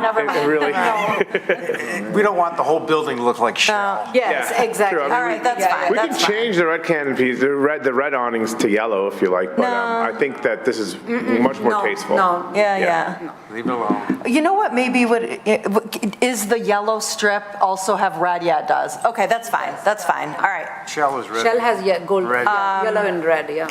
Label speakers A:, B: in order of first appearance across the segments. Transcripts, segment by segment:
A: never
B: It- it
A: mind.
B: really-
A: No.
C: We don't want the whole building to look like shell.
D: Yes,
B: Yeah,
D: exactly.
B: true. I mean,
A: All right, that's fine,
B: We can
A: that's fine.
B: change the red canopies, the red, the red awnings to yellow if you like, but um, I
A: No.
B: think that this is much more
D: No,
B: tasteful.
D: no.
A: Yeah, yeah.
C: Leave it alone.
D: You know what maybe would, is the yellow strip also have red? Yeah, it does.
A: Okay, that's fine, that's fine, all right.
C: Shell is red.
E: Shell has ye- gold,
C: Red.
E: yeah, yellow and red, yeah.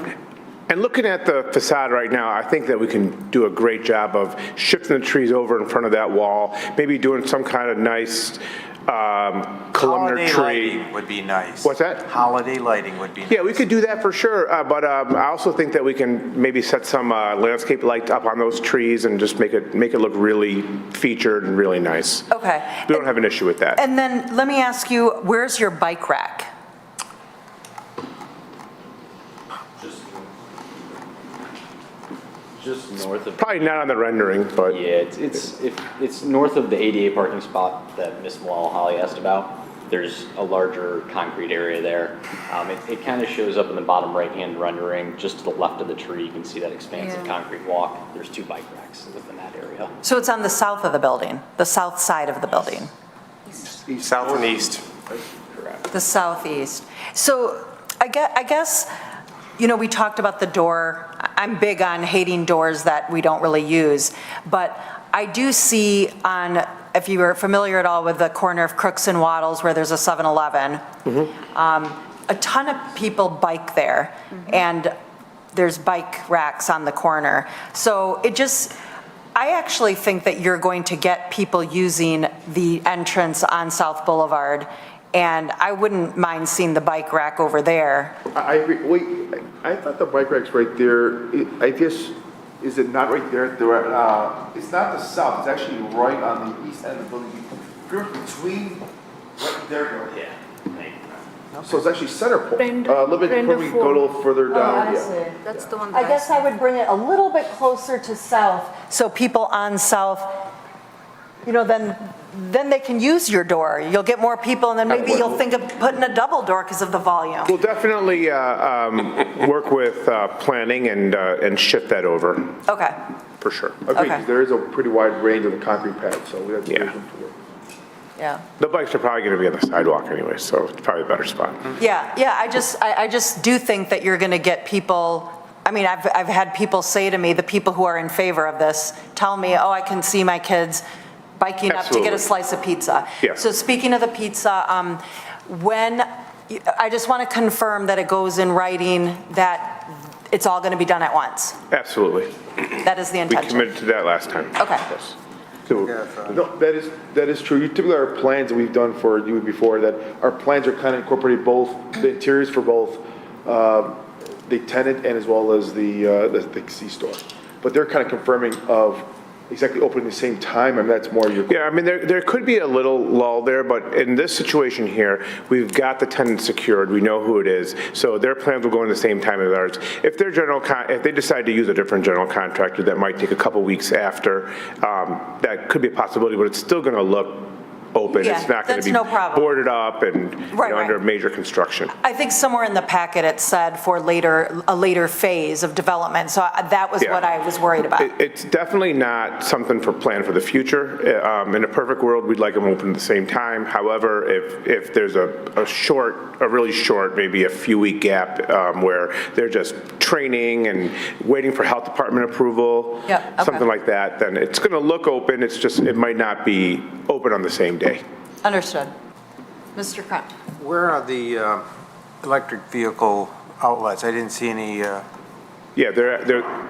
B: And looking at the facade right now, I think that we can do a great job of shifting the trees over in front of that wall, maybe doing some kind of nice um, columnar
C: Holiday
B: tree.
C: lighting would be nice.
B: What's that?
C: Holiday lighting would be.
B: Yeah, we could do that for sure, uh, but um, I also think that we can maybe set some uh, landscape light up on those trees and just make it, make it look really featured and really nice.
D: Okay.
B: We don't have an issue with that.
D: And then let me ask you, where's your bike rack?
F: Just north of,
B: Probably not on the rendering, but.
F: yeah, it's, it's, if, it's north of the ADA parking spot that Ms. Malala Holly asked about. There's a larger concrete area there. Um, it, it kind of shows up in the bottom right-hand rendering, just to the left of the tree, you can see that expansive
E: Yeah.
F: concrete walk. There's two bike racks within that area.
D: So it's on the south of the building, the south side of the building,
C: South and east.
D: the southeast. So I guess, I guess, you know, we talked about the door. I- I'm big on hating doors that we don't really use, but I do see on, if you were familiar at all with the corner of Crooks and Waddles where there's a 7-Eleven, a ton of people bike there,
E: Mm-hmm.
D: and there's bike racks on the corner. So it just, I actually think that you're going to get people using the entrance on South Boulevard, and I wouldn't mind seeing the bike rack over there.
G: I, I agree. wait, I I thought the bike rack's right there, I- I guess, is it not right there, at the, right- uh, it's not the south, it's actually right on the east end of the building. You're between, right there,
F: Yeah.
G: so it's actually center point,
E: Brenda-
G: a little bit,
E: Brenda
G: we go a little further
D: Oh,
G: down, yeah.
E: That's the one.
D: I
E: that
D: guess I would bring it a little bit closer to south, so people on south, you know, then, then they can use your door. You'll get more people, and then maybe you'll think of putting a double door because of the volume.
B: We'll definitely uh, um, work with uh, planning and, uh, and shift that over,
D: Okay.
B: for sure.
G: Agreed,
D: Okay.
G: 'cause there is a pretty wide range of the concrete pad, so we have to.
B: Yeah.
D: Yeah.
B: The bikes are probably going to be on the sidewalk anyway, so it's probably a better spot.
D: Yeah, yeah, I just, I, I just do think that you're going to get people, I mean, I've, I've had people say to me, the people who are in favor of this, tell me, oh, I can see my kids biking up to
B: Absolutely.
D: get a slice of pizza.
B: Yeah.
D: So speaking of the pizza, um, when, I just want to confirm that it goes in writing that it's all going to be done at once.
B: Absolutely.
D: That is the
B: We
D: intention.
B: committed to that last time.
D: Okay.
B: Yes.
G: So, no, that is, that is true. Typically, our plans that we've done for you before, that our plans are kind of incorporating both, the interiors for both um, the tenant and as well as the, uh, the- the C-store. But they're kind of confirming of exactly opening the same time, and that's more your.
B: Yeah, I mean, there, there could be a little lull there, but in this situation here, we've got the tenant secured, we know who it is, so their plans will go in the same time as ours. If their general, con- if they decide to use a different general contractor, that might take a couple weeks after, um, that could be a possibility, but it's still going to look open.
D: Yeah,
B: It's not going
D: that's
B: to be
D: no problem.
B: boarded up and, you
D: Right,
B: know, under
D: right.
B: major construction.
D: I think somewhere in the packet it said for later, a later phase of development, so I- that was
B: Yeah.
D: what I was worried about.
B: It- It's definitely not something for plan for the future. Uh, um, In a perfect world, we'd like them open at the same time. However, if, if there's a, a short, a really short, maybe a few week gap um, where they're just training and waiting for health department approval,
D: Yep, okay.
B: something like that, then it's going to look open, it's just, it might not be open on the same day.
D: Understood. Mr. Crunt?
C: Where are the uh, electric vehicle outlets? I didn't see any, uh,
B: Yeah, they're, they're,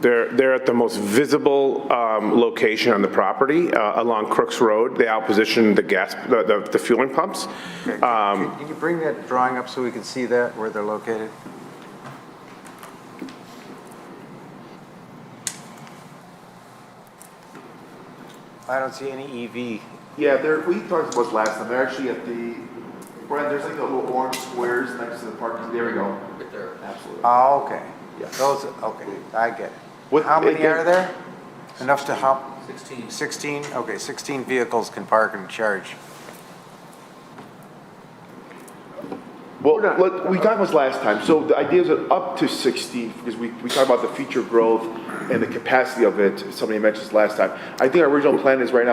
B: they're, they're at the most visible um, location on the property, uh, along Crooks Road. They outposition the gas, the- the the fueling pumps. Um,
C: can you bring that drawing up so we can see that, where they're located? I don't see any E EV.
G: Yeah, they're, we talked about this last time, they're actually at the, Brian, there's like the little orange squares next to the parking, there we go. Right there. Absolutely.
C: Oh, okay.
G: Yeah.
C: Those, okay, I get it.
G: What-
C: How many
G: again-
C: are there? Enough to hop? 16. 16, okay, 16 vehicles can park and charge.
G: Well, let- we talked about this last time, so the idea is that up to 60, because we, we talked about the future growth and the capacity of it, somebody mentioned this last time. I think our original plan is right now